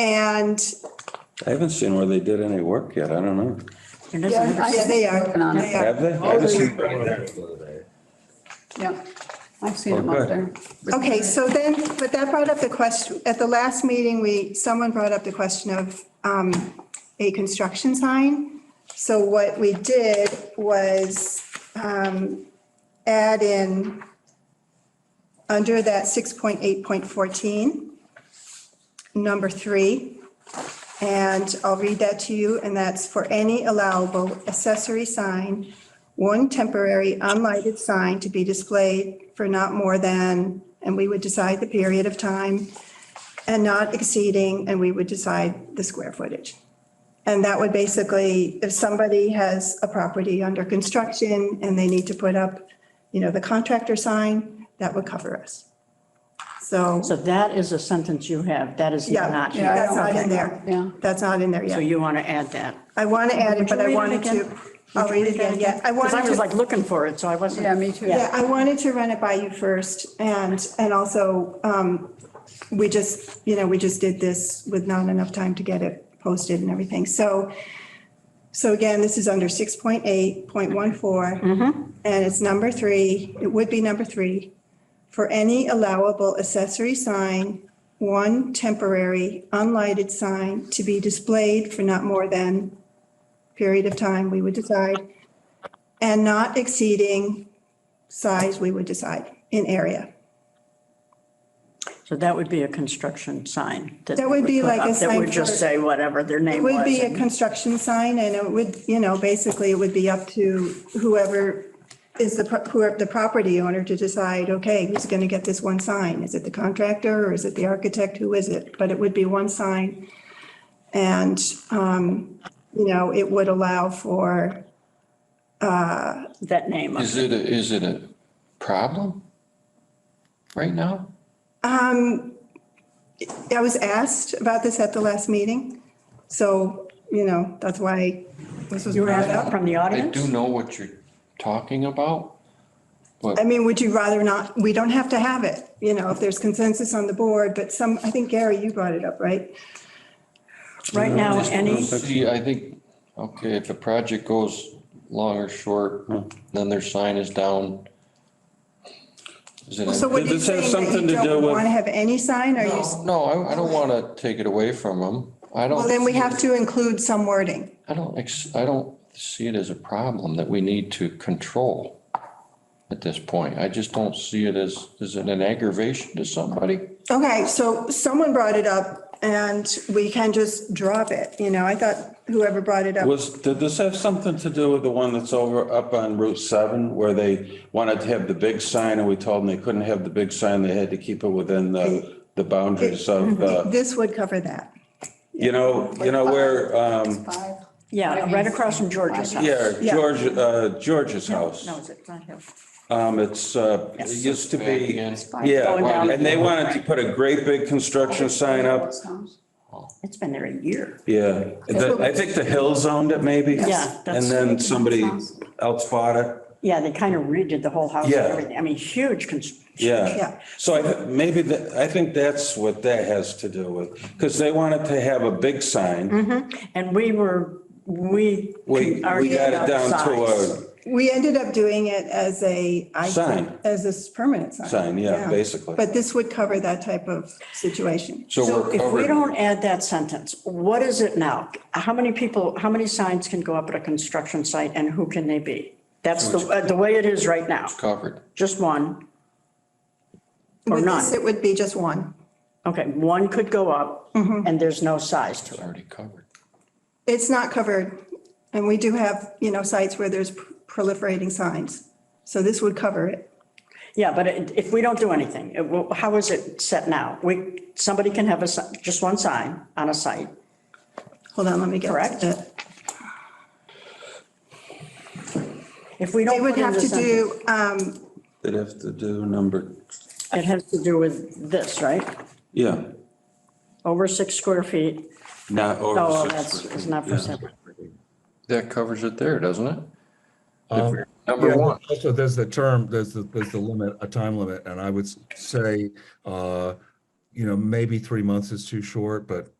And, I haven't seen where they did any work yet. I don't know. It is yeah, number yeah, six. they are, Working on it. they are. Have they? I haven't seen- Yeah, I've seen them up Okay. there. Okay, so then, but that brought up the question, at the last meeting, we, someone brought up the question of um, a construction sign. So what we did was um, add in, under that 6.8.14, number three, and I'll read that to you, and that's for any allowable accessory sign, one temporary unlighted sign to be displayed for not more than, and we would decide the period of time, and not exceeding, and we would decide the square footage. And that would basically, if somebody has a property under construction and they need to put up, you know, the contractor sign, that would cover us. So, So that is a sentence you have, that is Yeah, not yeah, here. that's not in there. Yeah. That's not in there So yet. you want to add that? I want to add it, Would you but I read it wanted again? to, I'll read it again, yeah. I Because wanted I was to- like looking for it, so I wasn't. Yeah, me too. Yeah, I wanted to run it by you first and, and also, um, we just, you know, we just did this with not enough time to get it posted and everything. So, so again, this is under six point eight point one four. And it's number three, it would be number three. For any allowable accessory sign, one temporary unlighted sign to be displayed for not more than period of time we would decide and not exceeding size we would decide in area. So that would be a construction sign. That they would be put like a up That sign would just for- say whatever their name It was. would be a and- construction sign and it would, you know, basically it would be up to whoever is the, pro- whoever the property owner to decide, okay, who's going to get this one sign? Is it the contractor or is it the architect? Who is it? But it would be one sign. And, um, you know, it would allow for, That name. Is it, a- is it a problem right now? I was asked about this at the last meeting. So, you know, that's why this was You were brought asked up. that from the I audience? do know what you're talking about. I mean, would you rather not, we don't have to have it, you know, if there's consensus on the board, but some, I think Gary, you brought it up, right? Right now, any, See, I think, okay, if a project goes long or short, then their sign is down. Is it? So a- what are you Does this have saying, that something you to do don't with- want to have any sign, or you, No, I, I don't want to take it away from them. I don't. well, then we have to include some wording. I don't, ex- I don't see it as a problem that we need to control at this point. I just don't see it as, is it an aggravation to somebody? Okay, so someone brought it up, and we can just drop it, you know, I thought whoever brought it up, Was, did this have something to do with the one that's over up on Route 7 where they wanted to have the big sign and we told them they couldn't have the big sign? They had to keep it within the, the boundaries of, Mhm. uh, this would cover that. you know, you know, where, um, Five. yeah, right across from George's house. yeah, Yeah. George, uh, George's house. No, is it not him? Um, it's, uh, it used to Back be, in. Going yeah, down. and they wanted to put a great big construction sign up. It's been there a year. Yeah, The- I think the Hills owned it maybe. Yeah, And that's- then somebody else bought it. Yeah, they kind of redid the whole house and Yeah. everything. I mean, huge construction. Yeah. Yeah. So I, thi- maybe that, I think that's what that has to do with, because they wanted to have a big sign. Mm-hmm. And we were, we. We, we argued got it about down to size. a We ended up doing it as a, I think, Sign. as a s- permanent sign. sign, yeah, basically. But this would cover that type of situation. So So we're if we covered. don't add that sentence, what is it now? How many people, how many signs can go up at a construction site and who can they be? That's the, uh, the way it is right now. Covered. Just one. Or With this, none. it would be just one. Okay, one could go up Mm-hmm. and there's no size to It's it. already covered. It's not covered, and we do have, you know, sites where there's proliferating signs. So this would cover it. Yeah, but it- if we don't do anything, it will- how is it set now? We, somebody can have a, si- just one sign on a site. Hold on, let me get Correct. to it. If we They don't would put in have the to sentence, do, um, They'd have to do number, it has to do with this, right? yeah, Over six square feet. not Oh, over that's, six. it's not for Yeah. sale. That covers it there, doesn't it? If we're- Um, Yeah, Number one, Also, there's the term, there's the, there's the limit, a time limit, and I would s- say, uh, you know, maybe three months is too short, but